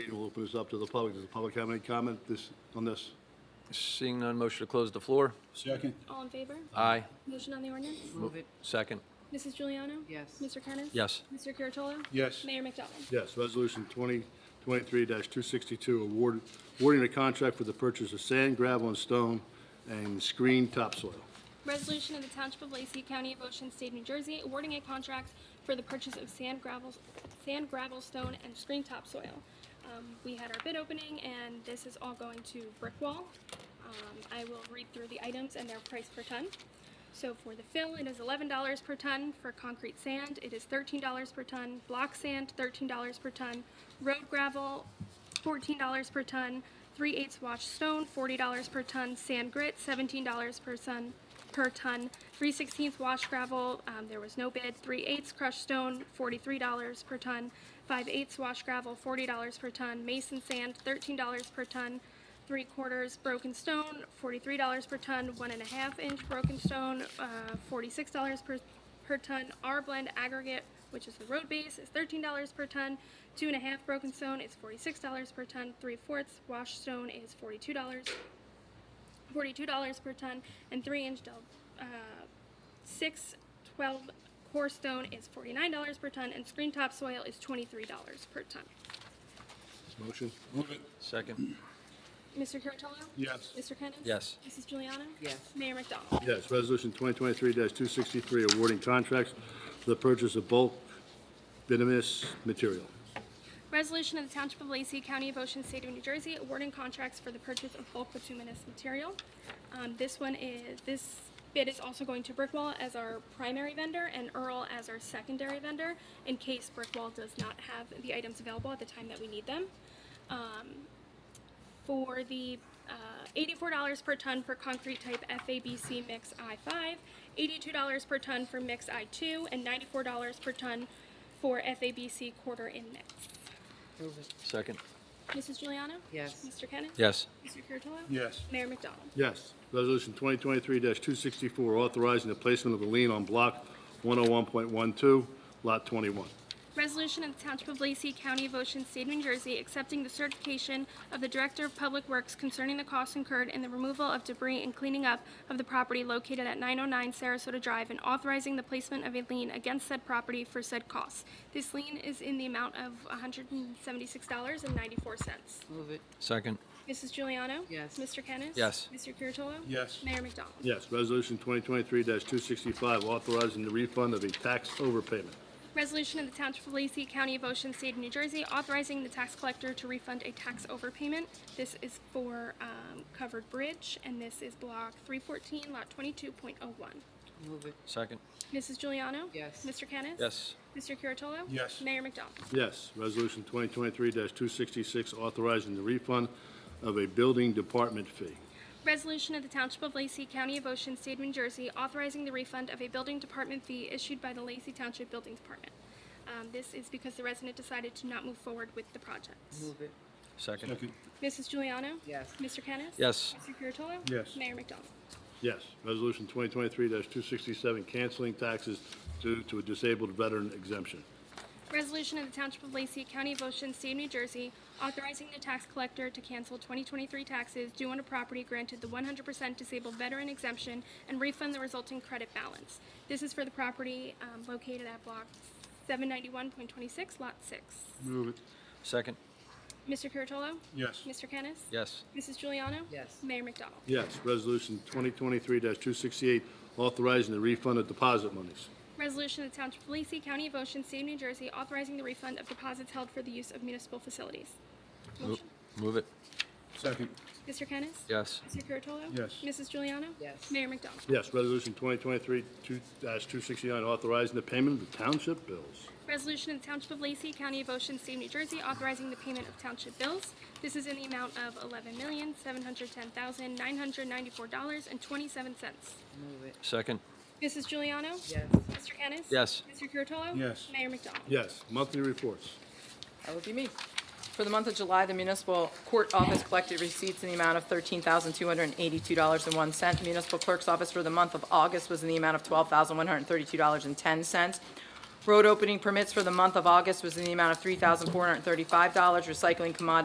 We'll open this up to the public. Does the public have any comment this, on this? Seeing none, motion to close the floor? Second. All in favor? Aye. Motion on the ordinance? Move it, Second. Mrs. Juliano? Yes. Mr. Kennis? Yes. Mr. Curatolo? Yes. Mayor McDonald? Yes, Resolution 2023-262, award, awarding a contract for the purchase of sand, gravel, and stone, and screened topsoil. Resolution of the Township of Lacey, County of Ocean, State of New Jersey, awarding a contract for the purchase of sand, gravel, sand, gravel, stone, and screen topsoil. Um, we had our bid opening, and this is all going to Brickwall. Um, I will read through the items and their price per ton. So for the fill, it is eleven dollars per ton. For concrete sand, it is thirteen dollars per ton. Block sand, thirteen dollars per ton. Road gravel, fourteen dollars per ton. Three-eighths washed stone, forty dollars per ton. Sand grit, seventeen dollars per ton. Per ton. Three sixteenths washed gravel, um, there was no bid. Three-eighths crushed stone, forty-three dollars per ton. Five-eighths washed gravel, forty dollars per ton. Mason sand, thirteen dollars per ton three quarters broken stone, forty-three dollars per ton, one and a half inch broken stone, uh, forty-six dollars per, per ton. Our blend aggregate, which is the road base, is thirteen dollars per ton. Two and a half broken stone is forty-six dollars per ton. Three fourths wash stone is forty-two dollars, forty-two dollars per ton, and three inch del, uh, six twelve core stone is forty-nine dollars per ton, and screen topsoil is twenty-three dollars per ton. Motion? Second. Mr. Curatolo? Yes. Mr. Kennis? Yes. Mrs. Juliana? Yes. Mayor McDonald? Yes, Resolution 2023-263, awarding contracts for the purchase of bulk venomous material. Resolution of the Township of Lacey, County of Ocean, State of New Jersey, awarding contracts for the purchase of bulk bituminous material. Um, this one is, this bid is also going to Brickwall as our primary vendor and Earl as our secondary vendor in case Brickwall does not have the items available at the time that we need them. Um, for the uh, $84 per ton for concrete type FABC mix I5, $82 per ton for mix I2, and $94 per ton for FABC quarter in mix. move it, Second. Mrs. Juliana? Yes. Mr. Kennis? Yes. Mr. Curatolo? Yes. Mayor McDonald? Yes. Resolution 2023-264, authorizing the placement of a lien on Block 101.12, Lot 21. Resolution of the Township of Lacey, County of Ocean, State of New Jersey, accepting the certification of the Director of Public Works concerning the costs incurred in the removal of debris and cleaning up of the property located at 909 Sarasota Drive and authorizing the placement of a lien against said property for said costs. This lien is in the amount of $176.94. move it, Second. Mrs. Juliano? Yes. Mr. Kennis? Yes. Mr. Curatolo? Yes. Mayor McDonald? Yes, Resolution 2023-265, authorizing the refund of a tax overpayment. Resolution of the Township of Lacey, County of Ocean, State of New Jersey, authorizing the tax collector to refund a tax overpayment. This is for um, Covered Bridge, and this is Block 314, Lot 22.01. move it, Second. Mrs. Juliano? Yes. Mr. Kennis? Yes. Mr. Curatolo? Yes. Mayor McDonald? Yes, Resolution 2023-266, authorizing the refund of a building department fee. Resolution of the Township of Lacey, County of Ocean, State of New Jersey, authorizing the refund of a building department fee issued by the Lacey Township Building Department. Um, This is because the resident decided to not move forward with the project. move it, Second. Mrs. Juliano? Yes. Mr. Kennis? Yes. Mr. Curatolo? Yes. Mayor McDonald? Yes, Resolution 2023-267, canceling taxes due to a disabled veteran exemption. Resolution of the Township of Lacey, County of Ocean, State of New Jersey, authorizing the tax collector to cancel 2023 taxes due on a property granted the 100% disabled veteran exemption and refund the resulting credit balance. This is for the property um, located at Block 791.26, Lot 6. Move it. Second. Mr. Curatolo? Yes. Mr. Kennis? Yes. Mrs. Juliano? Yes. Mayor McDonald? Yes, Resolution 2023-268, authorizing the refund of deposit monies. Resolution of the Township of Lacey, County of Ocean, State of New Jersey, authorizing the refund of deposits held for the use of municipal facilities. Mo- Motion. Move it. Second. Mr. Kennis? Yes. Mr. Curatolo? Yes. Mrs. Juliana? Yes. Mayor McDonald? Yes, Resolution 2023-269, authorizing the payment of township bills. Resolution of the Township of Lacey, County of Ocean, State of New Jersey, authorizing the payment of township bills. This is in the amount of eleven million, seven hundred ten thousand, nine hundred ninety-four dollars and twenty-seven cents. move it, Second. Mrs. Juliano? yes. Mr. Kennis? Yes. Mr. Curatolo? Yes. Mayor McDonald? Yes, monthly reports. That would be me. For the month of July, the municipal court office collected receipts in the amount of $13,282.01. Municipal clerk's office for the month of August was in the amount of $12,132.10. Road opening permits for the month of August was in the amount of $3,435. Recycling commodity